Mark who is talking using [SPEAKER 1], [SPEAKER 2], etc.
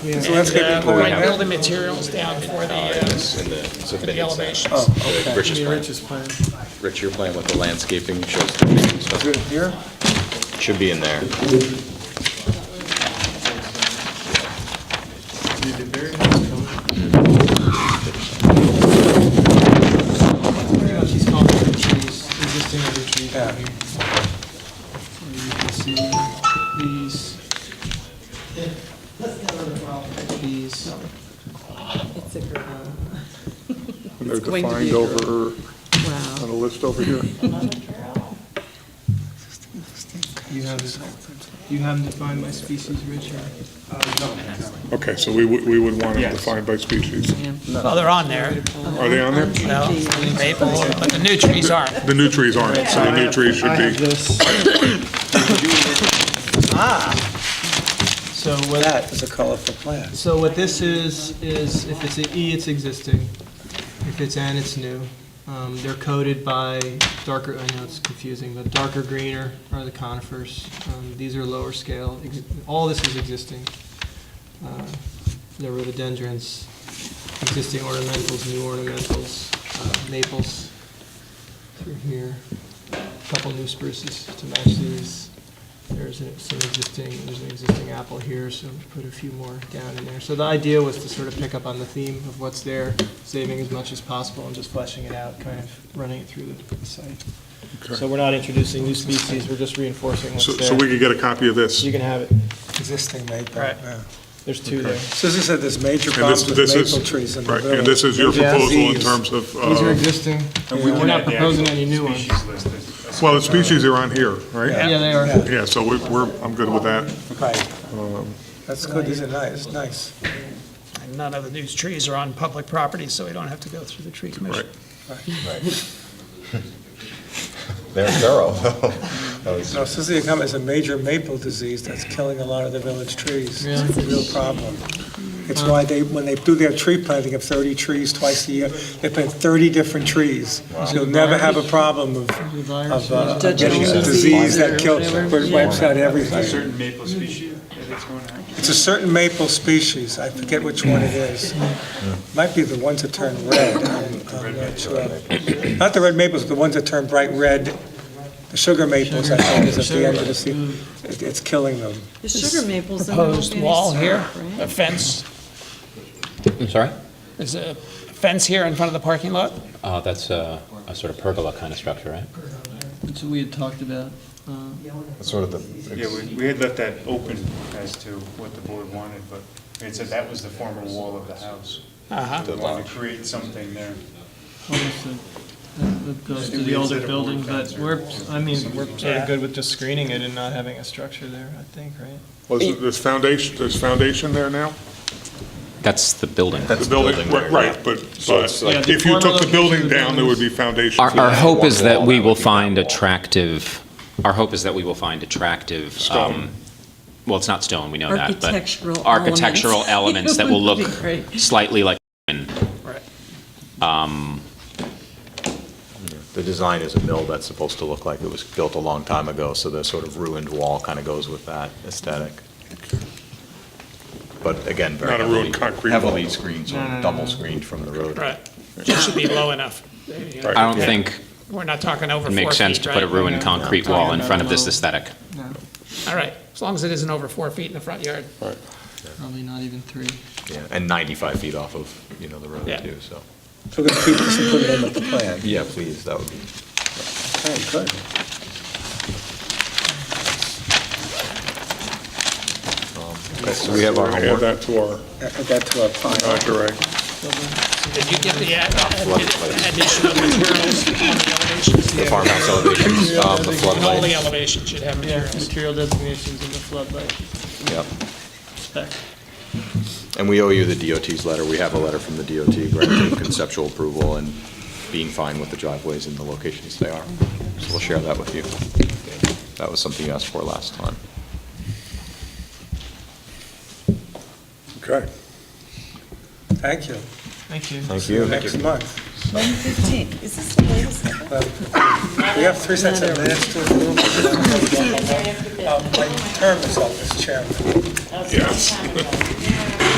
[SPEAKER 1] So that's good
[SPEAKER 2] And, uh,
[SPEAKER 1] people
[SPEAKER 2] we're
[SPEAKER 1] we
[SPEAKER 2] gonna
[SPEAKER 1] have.
[SPEAKER 2] Build the materials down for the, uh,
[SPEAKER 3] in the
[SPEAKER 2] for the
[SPEAKER 3] submitted
[SPEAKER 2] elevation.
[SPEAKER 1] Oh,
[SPEAKER 3] plans. The Rich's
[SPEAKER 1] Maybe
[SPEAKER 3] plan,
[SPEAKER 1] Rich's plan.
[SPEAKER 3] Rich, your plan with the landscaping shows the trees and stuff.
[SPEAKER 1] Through here?
[SPEAKER 3] should be in there.
[SPEAKER 1] You did very nice, Tony. She's calling the trees, existing other trees down here. And You can see these. These.
[SPEAKER 4] It's a girl.
[SPEAKER 5] And they're
[SPEAKER 4] It's going to be
[SPEAKER 5] defined
[SPEAKER 4] a girl.
[SPEAKER 5] over, on a
[SPEAKER 4] Wow.
[SPEAKER 5] list over here.
[SPEAKER 1] You have, you haven't defined my species, Richard. Uh,
[SPEAKER 5] Okay, so we would, we would want it defined by species.
[SPEAKER 2] Well, they're on there,
[SPEAKER 5] Are they on there?
[SPEAKER 2] well, maple, but the new trees aren't.
[SPEAKER 5] The new trees aren't, so the new trees should be,
[SPEAKER 1] this. So what? That is a colorful plant. So what this is, is if it's an E, it's existing. If it's N, it's new. Um, They're coded by darker, I know it's confusing, but darker greener are the conifers. Um, These are lower scale. Ex- All this is existing. Uh, The rhododendrons, existing ornamentals, new ornamentals, uh, maples through here couple new spruces to match these. There's an- some existing, there's an existing apple here, so we put a few more down in there. So the idea was to sort of pick up on the theme of what's there, saving as much as possible and just fleshing it out, kind of running it through the the site. So we're not introducing new species, we're just reinforcing
[SPEAKER 5] so,
[SPEAKER 1] what's
[SPEAKER 5] so we
[SPEAKER 1] there.
[SPEAKER 5] could get a copy of this.
[SPEAKER 1] You
[SPEAKER 5] And
[SPEAKER 1] can have it.
[SPEAKER 6] existing maple.
[SPEAKER 1] Right.
[SPEAKER 6] yeah.
[SPEAKER 1] There's two there.
[SPEAKER 6] So as I said, there's major
[SPEAKER 5] this,
[SPEAKER 6] problems with
[SPEAKER 5] this
[SPEAKER 6] maple
[SPEAKER 5] is,
[SPEAKER 6] trees in the
[SPEAKER 5] right,
[SPEAKER 6] village.
[SPEAKER 5] and this is your
[SPEAKER 1] Yeah.
[SPEAKER 5] proposal in
[SPEAKER 6] These.
[SPEAKER 5] terms of,
[SPEAKER 1] These are
[SPEAKER 5] uh,
[SPEAKER 1] existing. We're not proposing any new ones.
[SPEAKER 5] well, the species are on here, right?
[SPEAKER 1] Yeah, they are.
[SPEAKER 5] Yeah, so we- we're, I'm good with that.
[SPEAKER 6] Right.
[SPEAKER 1] Um,
[SPEAKER 6] That's good, these are nice, nice,
[SPEAKER 2] And none of the new trees are on public property, so we don't have to go through the tree commission.
[SPEAKER 3] They're thorough. That was-
[SPEAKER 6] No, Cecilia Cum is a major maple disease that's killing a lot of the village trees. It's a real problem. It's why they, when they do their tree planting of 30 trees twice a year, they plant 30 different trees. You'll never have a problem of,
[SPEAKER 1] Of,
[SPEAKER 6] of uh,
[SPEAKER 4] Dutch
[SPEAKER 6] getting a
[SPEAKER 4] disease
[SPEAKER 6] disease
[SPEAKER 4] or
[SPEAKER 6] that kills,
[SPEAKER 4] whatever.
[SPEAKER 6] but it wipes out everything.
[SPEAKER 7] certain maple species that it's going on.
[SPEAKER 6] It's a certain maple species, I forget which one it is. Might be the ones that turn red, I'm I'm not sure. Not the red maples, the ones that turn bright red, the sugar maples, I think, is at the end of the season. It- It's killing them.
[SPEAKER 4] The sugar maples. and
[SPEAKER 2] Proposed
[SPEAKER 4] Albany
[SPEAKER 2] wall
[SPEAKER 4] syrup,
[SPEAKER 2] here,
[SPEAKER 4] right?
[SPEAKER 2] a fence,
[SPEAKER 8] I'm sorry?
[SPEAKER 2] there's a fence here in front of the parking lot.
[SPEAKER 8] Uh, that's a, a sort of pergola kind of structure, right?
[SPEAKER 1] Which we had talked about.
[SPEAKER 7] Yeah, we, we had left that open as to what the board wanted, but it said that was the former wall of the house.
[SPEAKER 2] Uh-huh.
[SPEAKER 7] We wanted to create something there.
[SPEAKER 1] Understood. That that goes to the older building, but we're, I mean, we're sort
[SPEAKER 2] Yeah.
[SPEAKER 1] of good with just screening it and not having a structure there, I think, right?
[SPEAKER 5] Was, it- there's foundation, there's foundation there now?
[SPEAKER 8] That's the building.
[SPEAKER 5] The building, right, right, but, but
[SPEAKER 1] Yeah, the
[SPEAKER 5] if you took
[SPEAKER 1] former
[SPEAKER 5] the
[SPEAKER 1] location
[SPEAKER 5] building
[SPEAKER 1] of the
[SPEAKER 5] down, there would be foundation.
[SPEAKER 8] Our, our hope is that we will find
[SPEAKER 3] a track.
[SPEAKER 8] attractive, our hope is that we will find attractive, um, well, it's not stone, we know that, but.
[SPEAKER 4] Architectural elements.
[SPEAKER 8] Architectural elements that will look
[SPEAKER 4] Would be great.
[SPEAKER 8] slightly like,
[SPEAKER 3] The design is a mill that's supposed to look like it was built a long time ago, so the sort of ruined wall kind of goes with that aesthetic. But again, very
[SPEAKER 5] Not a
[SPEAKER 3] heavily,
[SPEAKER 5] ruined concrete wall.
[SPEAKER 3] heavily screened, sort of double screened from the road.
[SPEAKER 2] Right, just should be low enough.
[SPEAKER 8] I don't think
[SPEAKER 2] We're not talking over
[SPEAKER 8] it
[SPEAKER 2] four feet,
[SPEAKER 8] makes sense to put a
[SPEAKER 2] right?
[SPEAKER 8] ruined concrete wall in front of this aesthetic.
[SPEAKER 2] All right, as long as it isn't over four feet in the front yard.
[SPEAKER 1] Probably not even three.
[SPEAKER 3] Yeah, And 95 feet off of, you know, the road
[SPEAKER 2] Yeah.
[SPEAKER 3] too, so.
[SPEAKER 6] So we're going to keep this and put it in with the plan.
[SPEAKER 3] Yeah, please, that would be.
[SPEAKER 6] Okay, good.
[SPEAKER 3] So we have our
[SPEAKER 5] Add
[SPEAKER 3] homework.
[SPEAKER 5] that to our,
[SPEAKER 6] Add that to our plan.
[SPEAKER 5] uh, array.
[SPEAKER 2] Did you get the ad- addition of materials on the elevations?
[SPEAKER 3] The farmhouse elevations, um, the
[SPEAKER 2] All the
[SPEAKER 3] floodlights.
[SPEAKER 2] elevations should have
[SPEAKER 1] Yeah,
[SPEAKER 2] materials.
[SPEAKER 1] material designations in the floodlight
[SPEAKER 3] Yep.
[SPEAKER 1] spec.
[SPEAKER 3] And we owe you the DOT's letter. We have a letter from the DOT granting conceptual approval and being fine with the driveways and the locations they are. So we'll share that with you. That was something you asked for last time.
[SPEAKER 5] Okay.
[SPEAKER 6] Thank you.
[SPEAKER 1] Thank you.
[SPEAKER 3] Thank you.
[SPEAKER 6] Next month.
[SPEAKER 9] 115, is this the latest?
[SPEAKER 6] We have three sets of minutes Um, to approve. Uh, My term is up as chairman.
[SPEAKER 5] Yes.